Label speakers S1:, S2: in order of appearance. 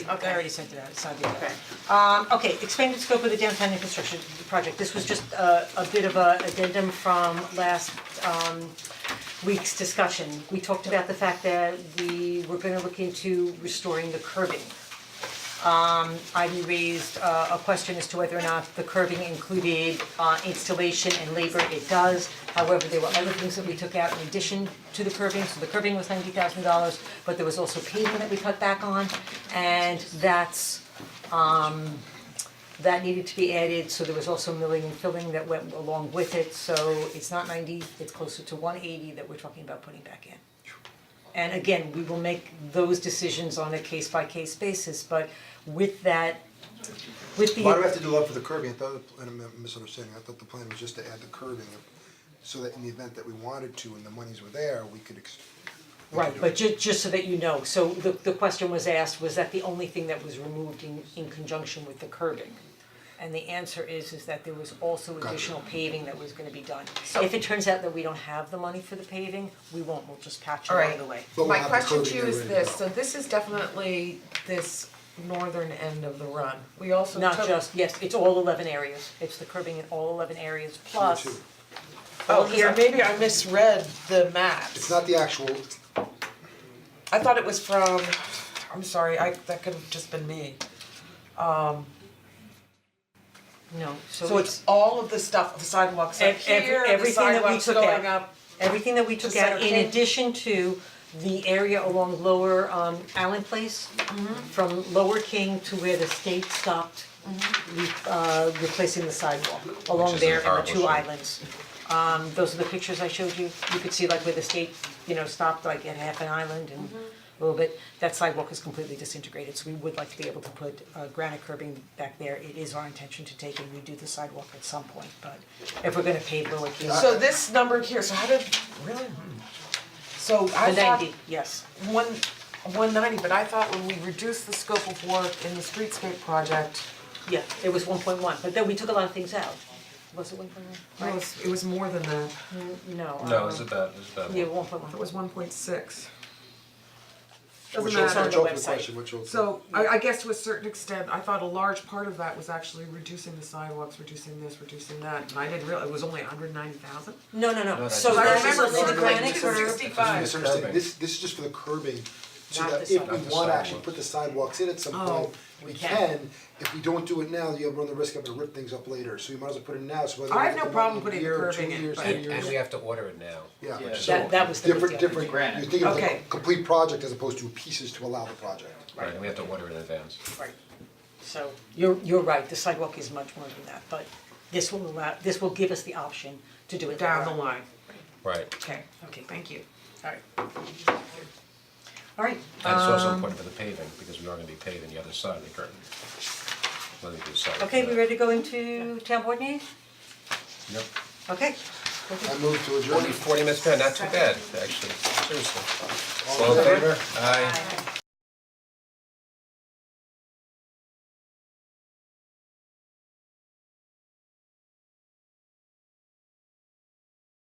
S1: Okay.
S2: I already sent it out, it's not the
S1: Okay.
S2: Um, okay, expanded scope of the downtown infrastructure project, this was just a, a bit of a addendum from last, um, week's discussion. We talked about the fact that we were gonna look into restoring the curbing. Um, I raised uh, a, a question as to whether or not the curbing included, uh, installation and labor, it does. However, there were other things that we took out in addition to the curbing, so the curbing was ninety thousand dollars, but there was also pavement that we cut back on, and that's that needed to be added, so there was also milling and filling that went along with it, so it's not ninety, it's closer to one eighty that we're talking about putting back in. And again, we will make those decisions on a case by case basis, but with that, with the.
S3: Why do we have to do love for the curbing? I thought, the- and I'm misunderstanding, I thought the plan was just to add the curbing so that in the event that we wanted to and the monies were there, we could ex- we could
S2: Right,
S3: do
S2: but
S3: it.
S2: ju- just so that you know, so the the question was asked, was that the only thing that was removed in in conjunction with the curbing? And the answer is is that there was also
S3: Gotcha.
S2: additional paving that was gonna be done.
S1: So-
S2: If it turns out that we don't have the money for the paving, we won't, we'll just patch it
S1: All
S2: along
S1: right.
S2: the way.
S3: But we'll
S1: My
S3: have the
S1: question
S3: curbing
S1: to you
S3: there
S1: is
S3: ready to
S1: this,
S3: go.
S1: so this is definitely this northern end of the run. We also took.
S2: Not just, yes, it's all eleven areas, it's the curbing in all eleven areas plus.
S3: too.
S4: Oh,
S2: all here.
S4: here, maybe I misread the maps.
S3: It's not the actual,
S4: I thought it was from, I'm sorry, I, that could have just been me. Um,
S2: No, so
S4: so it's all of the stuff, the sidewalks up
S2: Ev- ev-
S4: here, the
S2: everything that we
S4: sidewalks
S2: took
S4: going
S2: out.
S4: up.
S2: everything that we took
S4: The
S2: out
S4: center
S2: in
S4: came-
S2: addition to the area along lower um Allen Place. From lower King to where the state stopped, re- uh replacing the sidewalk along
S5: Which is in
S2: there and
S5: horrible
S2: the two
S5: shape.
S2: islands. Um those are the pictures I showed you, you could see like where the state, you know, stopped like at half an island and a little bit. That sidewalk is completely disintegrated, so we would like to be able to put uh granite curbing back there, it is our intention to take and redo the sidewalk at some point, but if we're gonna pave lower King.
S4: So this numbered here, so how did, really? So I
S2: The
S4: thought
S2: ninety, yes.
S4: one, one ninety, but I thought when we reduced the scope of work in the streetscape project,
S2: Yeah, it was one point one, but then we took a lot of things out. Was it one point one?
S4: it was, it was more than that,
S2: No. uh,
S5: No, this is bad, this is bad.
S2: Yeah, one point one.
S4: it was one point six.
S3: which
S4: Doesn't
S3: old,
S4: matter.
S3: which old
S2: website.
S3: question, which old.
S4: So I I guess to a certain extent, I thought a large part of that was actually reducing the sidewalks, reducing this, reducing that, and I didn't realize, it was only hundred ninety thousand?
S2: No, no, no,
S5: that's
S2: so
S5: just-
S4: I
S2: that's
S4: remember
S2: just the
S4: looking at
S2: granite
S4: it.
S2: curve.
S3: I'm
S4: sixty-five.
S3: misunderstanding,
S5: Curbing.
S3: this, this is just for the curbing, so
S2: Not
S3: that
S2: the
S3: if we
S5: sidewalk.
S3: want to actually put the sidewalks in at some point,
S4: Oh,
S3: we
S2: can.
S3: can. If we don't do it now, you'll run the risk of it rip things up later, so you might as well put it now, so whether.
S4: I
S3: we
S4: have
S3: get
S4: no
S3: the
S4: problem
S3: money
S4: putting
S3: in
S4: the
S3: a year,
S4: curbing
S3: two
S4: in,
S3: years,
S4: but-
S3: three
S5: And
S3: years.
S5: and we have to order it now.
S3: Yeah,
S5: Yeah.
S3: so
S2: That, that was the big
S3: different,
S2: deal.
S3: different, you're thinking of a
S4: Okay.
S3: complete project as opposed to pieces to allow the project.
S5: Right, and we have to order it in advance.
S2: Right, so you're, you're right, the sidewalk is much more than that, but this will allow, this will give us the option to do it
S4: down
S2: later
S4: the
S2: on.
S4: line,
S5: Right,
S4: okay,
S2: Okay,
S4: thank you.
S2: alright. Alright,
S5: and it's
S2: Um,
S5: also important for the paving, because we are gonna be paving the other side of the curtain. Whether we do side.
S2: okay, we ready to go into town board meeting?
S5: Yep.
S2: Okay,
S3: I move to adjourn.
S5: Forty minutes, man, not too bad, actually, seriously. All in favor? Aye.